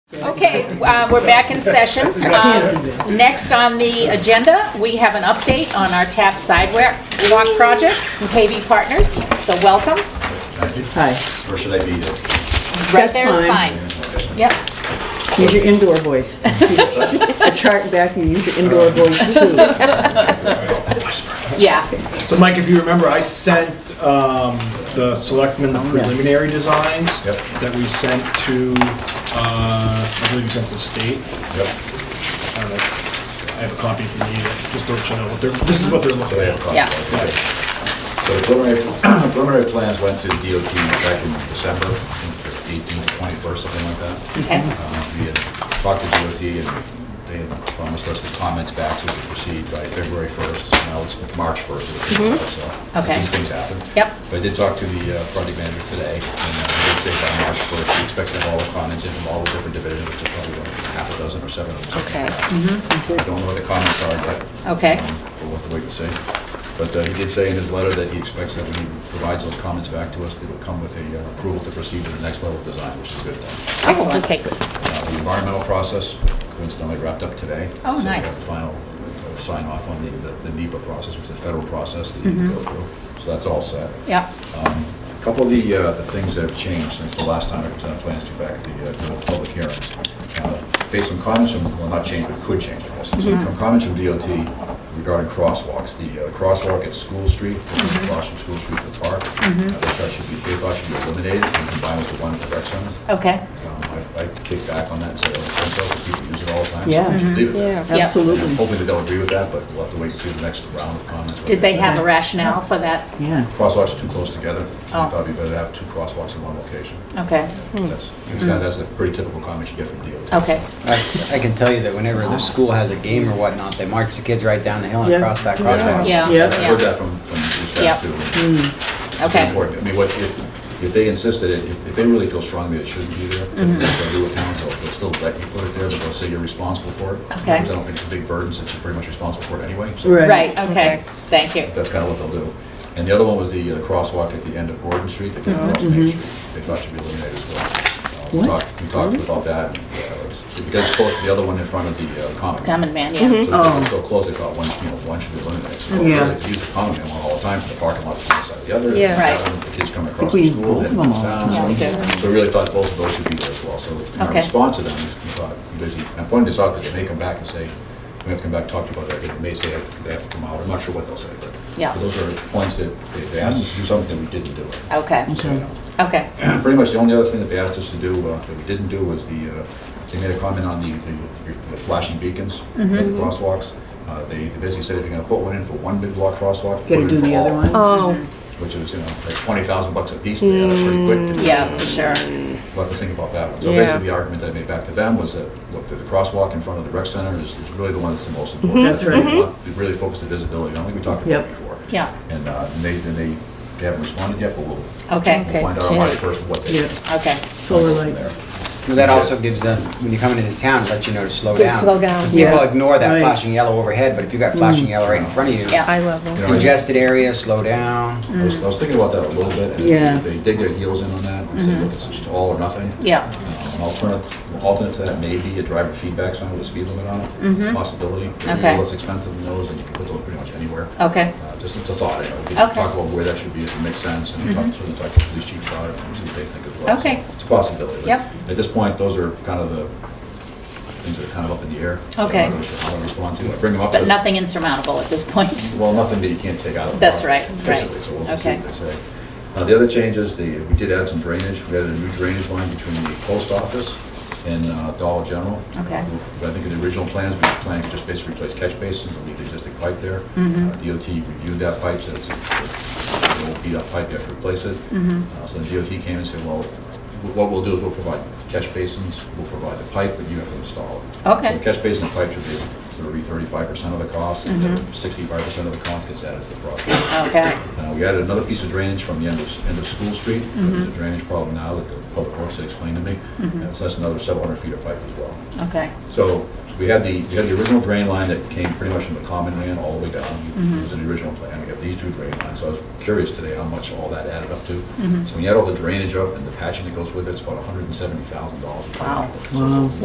uh, we're back in session. Um, Next on the agenda, we have an update on our TAP sidewalk walk project from KB Partners, so welcome. Hi, Or should I be there? Right That's there is fine. fine. Yep, use your indoor voice. The chart back, you use your indoor voice too. yeah, So Mike, if you remember, I sent um, the selectmen the preliminary designs Yep. that we sent to, uh, I believe we sent to state. Yep. I don't know. I have a copy if you need it, just don't you know what they're, this is what they're So they looking have at. copies. Yeah. Okay. So the preliminary, preliminary plans went to DOT back in December, eighteenth, twenty-first, something like that. okay, Uh, We had talked to DOT and they had promised us the comments back so we could proceed by February first. Now it's March first, so Mm-hmm. Okay. these things happen. Yep. But I did talk to the uh, project manager today and uh, he did say by March first, we expect to have all the comments in from all the different divisions, which is probably like half a dozen or seven of them. okay, Mm-hmm. I don't know what the comments are yet. Okay. Um, We'll have to wait and see. But uh, he did say in his letter that he expects that when he provides those comments back to us, they will come with a uh, approval to proceed to the next level of design, which is a good thing. excellent, Oh, okay, good. Uh, The environmental process coincidentally wrapped up today. Oh, So we nice. have Final uh, sign off on the- the the NEPA process, which is the federal process that you need to Mm-hmm. go through. So that's all set. Yep, A Couple of the, uh, the things that have changed since the last time I presented plans to you back at the, uh, to the public hearings. Uh, Based on comments from, well, not changed, but could change, I guess. So from comments from DOT regarding crosswalks, the uh, crosswalk at School Street, across from School Street to the park, uh, they thought should be, they thought should be eliminated and combined with the one at the rec center. okay, Um, I- I kicked back on that and said, "Oh, it's essential, people use it all the time. so we Yeah. should leave it there." yep. Absolutely, Hopefully they don't agree with that, but we'll have to wait and see the next round of comments. what Did they have a Okay. rationale for that? yeah. Crosswalks are too close together, so Oh. we thought it'd be better to have two crosswalks in one location. Okay, That's, it's not- that's a pretty typical comment you get from DOT. okay, I, I can tell you that whenever the school has a game or whatnot, they march the kids right down the hill and Yeah. across that Yeah. crosswalk. yeah, Yeah. I've heard yeah, that from, from the Yeah. staff too. It's okay. important. I mean, what, if, if they insisted, it, if if they really feel strongly it shouldn't be there, then they'll do it town, they'll they'll still let you put it there, but they'll say you're responsible for it. Okay. Because I don't think it's a big burden, since you're pretty much responsible for it anyway. so- Right. Right, okay, thank you. That's kind of what they'll do. And the other one was the uh, crosswalk at the end of Gordon Street, that kind of cross Main Street. They thought should be eliminated as well. Uh, we What? talked- We talked about that, and, uh, it's- because it's close to the other one in front of the uh, common. Common man, yeah, So because Oh. it's so close, they thought one, you know, one should be eliminated. So Yeah. they Use the common man one all the time, for the parking lot, one side or the other. Yeah. Right. The kids come I think across we the used school, both of then them comes all. down. Yeah, we so- did. So we really thought both of those should be there as well. So our Okay. response to them is, we thought, because he- I pointed this out, because they may come back and say, we have to come back, and talk to you about that, they may say they have to come out, I'm not sure what they'll say, but. Yeah. but Those are points that they- they asked us to do something, we didn't do it. okay, So, you know, okay, Pretty much the only other thing that they asked us to do, uh, that we didn't do, was the, uh, they made a comment on the the the flashing beacons at the Mm-hmm. crosswalks. Uh, They they basically said if you're gonna put one in for one big block crosswalk, put it Gotta in do for the other all, Uh, ones. Oh, Which is, you know, like twenty thousand bucks a piece, they add up pretty quick. to- Mm, yeah, for sure, We'll have to think about that one. So Yeah. basically, the argument that I made back to them was that, look, the the crosswalk in front of the rec center is is really the one that's the most Mm-hmm. important. That's what we right. want. We Really focus the visibility on, I think we talked about Yep. it before. yeah, And uh, and they, and they they haven't responded yet, but we'll we'll okay, Okay, find out on March jeez. first what they. Yeah, okay, solar from light. there. Well, That also gives them, when you come into this town, it lets you know to slow To down. slow down. 'Cause People Yeah. ignore that Right. flashing yellow overhead, but if you got flashing yellow right in front of you, yeah. eye level. You know, I- congested area, slow down. I was I was thinking about that a little bit. and Yeah. They dig their heels in on that, and Mm-hmm. say, look, it's just all or nothing. Uh, Yeah, An alternate, an alternate to that may be a driver feedback sign with a speed limit on it. It's a Possibility. Mm-hmm. Okay. It's less expensive than those, and you can put those pretty much anywhere. okay, Uh, Just it's a thought, you know, we Okay. can Mm-hmm. talk about where that should be, if it makes sense, and talk certainly talk to the police chief about it, and see what they think as well. So Okay. It's a possibility. but Yep. At this point, those are kind of the things that are kind of up in the air. So Okay. I'm not really sure how to respond to it. Bring them up. but as- nothing insurmountable at this point. well, nothing that you can't take out of the That's park, right, right. Basically, so we'll see Okay. what they say. Uh, The other change is the, we did add some drainage, we added a new drainage line between the post office and uh, Dollar General. Uh, Okay. But I think in the original plans, we planned to just basically replace catch basins and leave the existing pipe there. Mm-hmm. Uh, DOT reviewed that pipe, said it's a- it will be that pipe, you have to replace it. Mm-hmm. Uh, So the DOT came and said, well, what we'll do is we'll provide catch basins, we'll provide the pipe, but you have to install it. Okay. So catch basin and pipe should be 30, 35% of the cost, and then Mm-hmm. 65% of the cost gets added to the project. Okay, Uh, We added another piece of drainage from the end of, end of School Street. There's Mm-hmm. a drainage problem now that the public works had explained to me. And so that's another 700 feet of pipe as well. okay, So we had the, we had the original drain line that came pretty much from the common man all the way down. Mm-hmm. It was in the original plan. We got these two drain lines. So I was curious today how much all that added up to. Mm-hmm. So when you add all the drainage up and the patching that goes with it, it's about $170,000. Wow. So it's a Wow.